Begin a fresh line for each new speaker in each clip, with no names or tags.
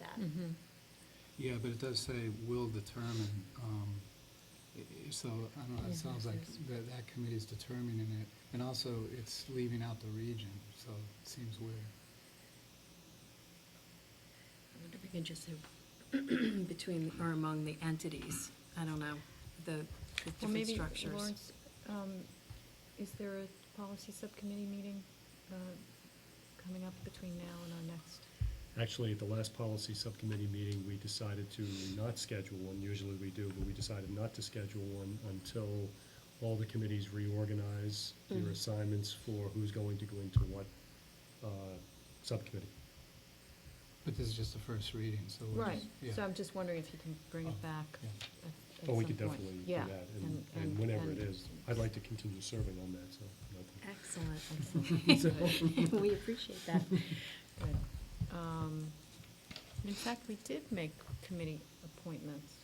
that.
Mm-hmm.
Yeah, but it does say will determine, um, i- i- so, I don't know,
Yeah,
it sounds like
that's-
that, that committee's determining it. And also, it's leaving out the region, so it seems weird.
I wonder if we can just say between or among the entities, I don't know, the the
Well,
different
maybe,
structures.
Lawrence, um, is there a policy subcommittee meeting uh, coming up between now and our next?
Actually, at the last policy subcommittee meeting, we decided to not schedule one. Usually we do, but we decided not to schedule one until all the committees reorganize their
Mhm.
assignments for who's going to go into what uh, subcommittee.
But this is just the first reading, so we'll
Right,
just, yeah.
so I'm just wondering if you can bring
Oh,
it back
yeah.
at at some point.
But Oh, we could definitely do
Yeah,
that, and- and whenever it is. I'd like to continue serving on that, so. nothing.
Excellent, excellent. We appreciate that.
Good. Um, and In fact, we did make committee appointments.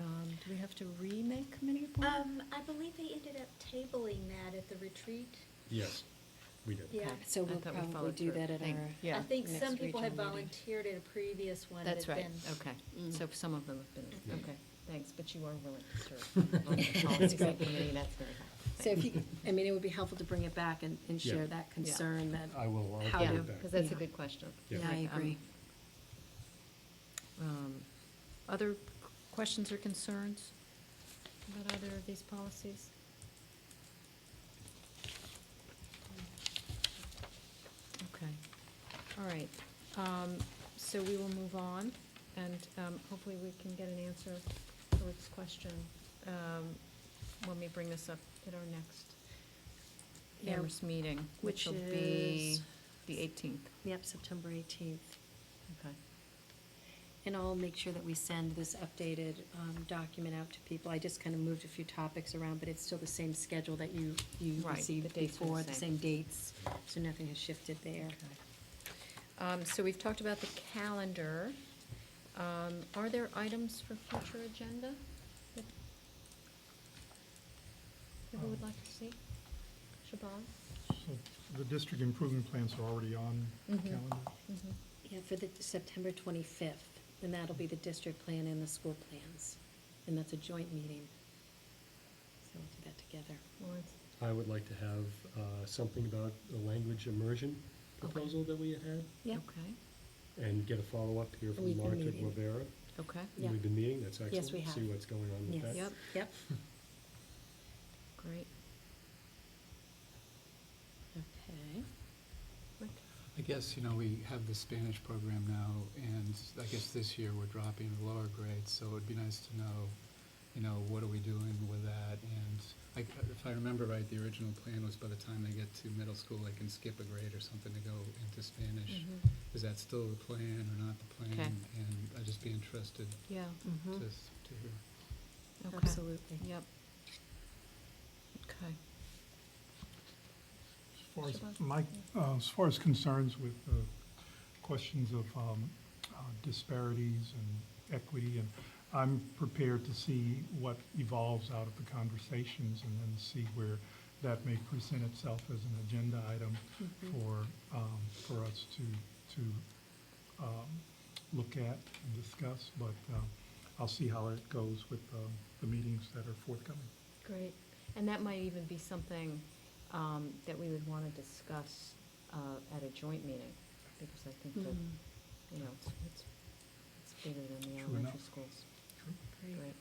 Um, Do we have to remake committee appointments?
Um, I believe they ended up tabling that at the retreat.
Yes, we did.
Yeah.
Okay.
So
I
we'll
thought we
probably
followed
do
through.
that at
Thank-
our
Yeah.
I think
Next
some people had
regional meeting.
volunteered at a previous one.
That's
but
right,
then-
okay.
Mm.
So some of them have
Yeah.
been, okay, thanks, but you are willing to serve on the policy
great.
subcommittee, that's very helpful.
So if you, I mean, it would be helpful to bring it back and, and
Yeah.
share that concern that,
I will, I'll
How
bring
Yeah,
do-
it back.
because that's a
Yeah.
good question.
Yeah.
yeah, I
Like, um,
agree.
um, Other q- questions or concerns about either of these policies? Okay, all right. Um, So we will move on, and um, hopefully we can get an answer to Rick's question um, when we bring this up at our next
Yeah.
Amherst meeting,
Which
which will be
is-
the 18th.
Yep, September eighteenth.
Okay.
And I'll make sure that we send this updated um, document out to people. I just kind of moved a few topics around, but it's still the same schedule that you, you
Right, the
received
dates were the
before, the
same.
same dates, so nothing has shifted there.
Um, so we've talked about the calendar. Um, are there items for future agenda? that People would like to see? Siobhan?
So The district improvement plans are already on the
Mhm.
Mm-hmm.
calendar.
Yeah, for the September twenty-fifth, and that'll be the district plan and the school plans, and that's a joint meeting. So we'll do that together.
Lawrence?
I would like to have uh, something about the language immersion
Okay.
proposal that we had had,
Yeah.
Okay,
and get a follow-up here
We've
from
been
Margaret
meeting.
Rivera.
okay,
Yeah.
We've been meeting, that's excellent.
Yes, we have.
See what's going on with
Yes.
that.
Yep.
Yep,
great.
okay.
Rick?
I guess, you know, we have the Spanish program now, and I guess this year we're dropping the lower grades, so it'd be nice to know, you know, what are we doing with that? And I, if I remember right, the original plan was by the time they get to middle school, they can skip a grade or something to go into Spanish. Is that still the plan or not the plan?
Okay.
And I'd just be interested
Yeah,
to,
Mhm.
to hear.
okay,
Absolutely.
yep. Okay,
As far
Siobhan?
as my, uh, as far as concerns with uh, questions of um, uh, disparities and equity, and I'm prepared to see what evolves out of the conversations and then see where that may present itself as an agenda item for, um, for us to, to, um, look at and discuss, but, um, I'll see how it goes with, um, the meetings that are forthcoming.
great. And that might even be something, um, that we would wanna discuss, uh, at a joint meeting, because I think that
Mm,
you know, it's, it's, it's bigger than the
True
elementary
enough.
schools.
True.
Great.
Right.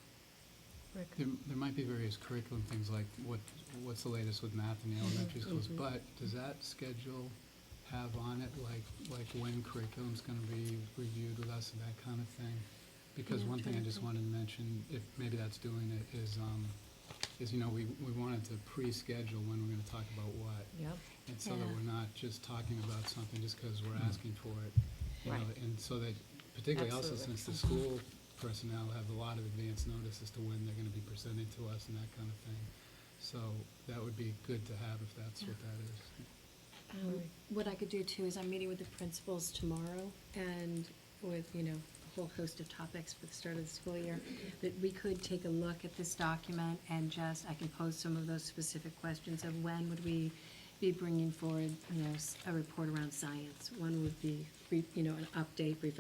Rick?
There, there might be various curriculum things like what, what's the latest with math in the elementary schools,
Mhm.
but does that schedule have on it, like, like when curriculum's gonna be reviewed with us and that kind of thing? Because
Yeah, I'm
one thing I
trying to
just
think.
wanted to mention, if maybe that's doing it, is, um, is, you know, we, we wanted to pre-schedule when we're gonna talk about what.
Yep,
And so that
Yeah.
we're not just talking about something just because we're asking for it. you know,
Right.
And so that, particularly also
Absolutely.
since the school personnel have a lot of advance notice as to when they're gonna be presented to us and that kind of thing. So that would be good to have if that's what that is.
Um, What I could do too is I'm meeting with the principals tomorrow and with, you know, a whole host of topics for the start of the school year, that we could take a look at this document and just, I can pose some of those specific questions of when would we be bringing forward, you know, s- a report around science? When would be, re- you know, an update, brief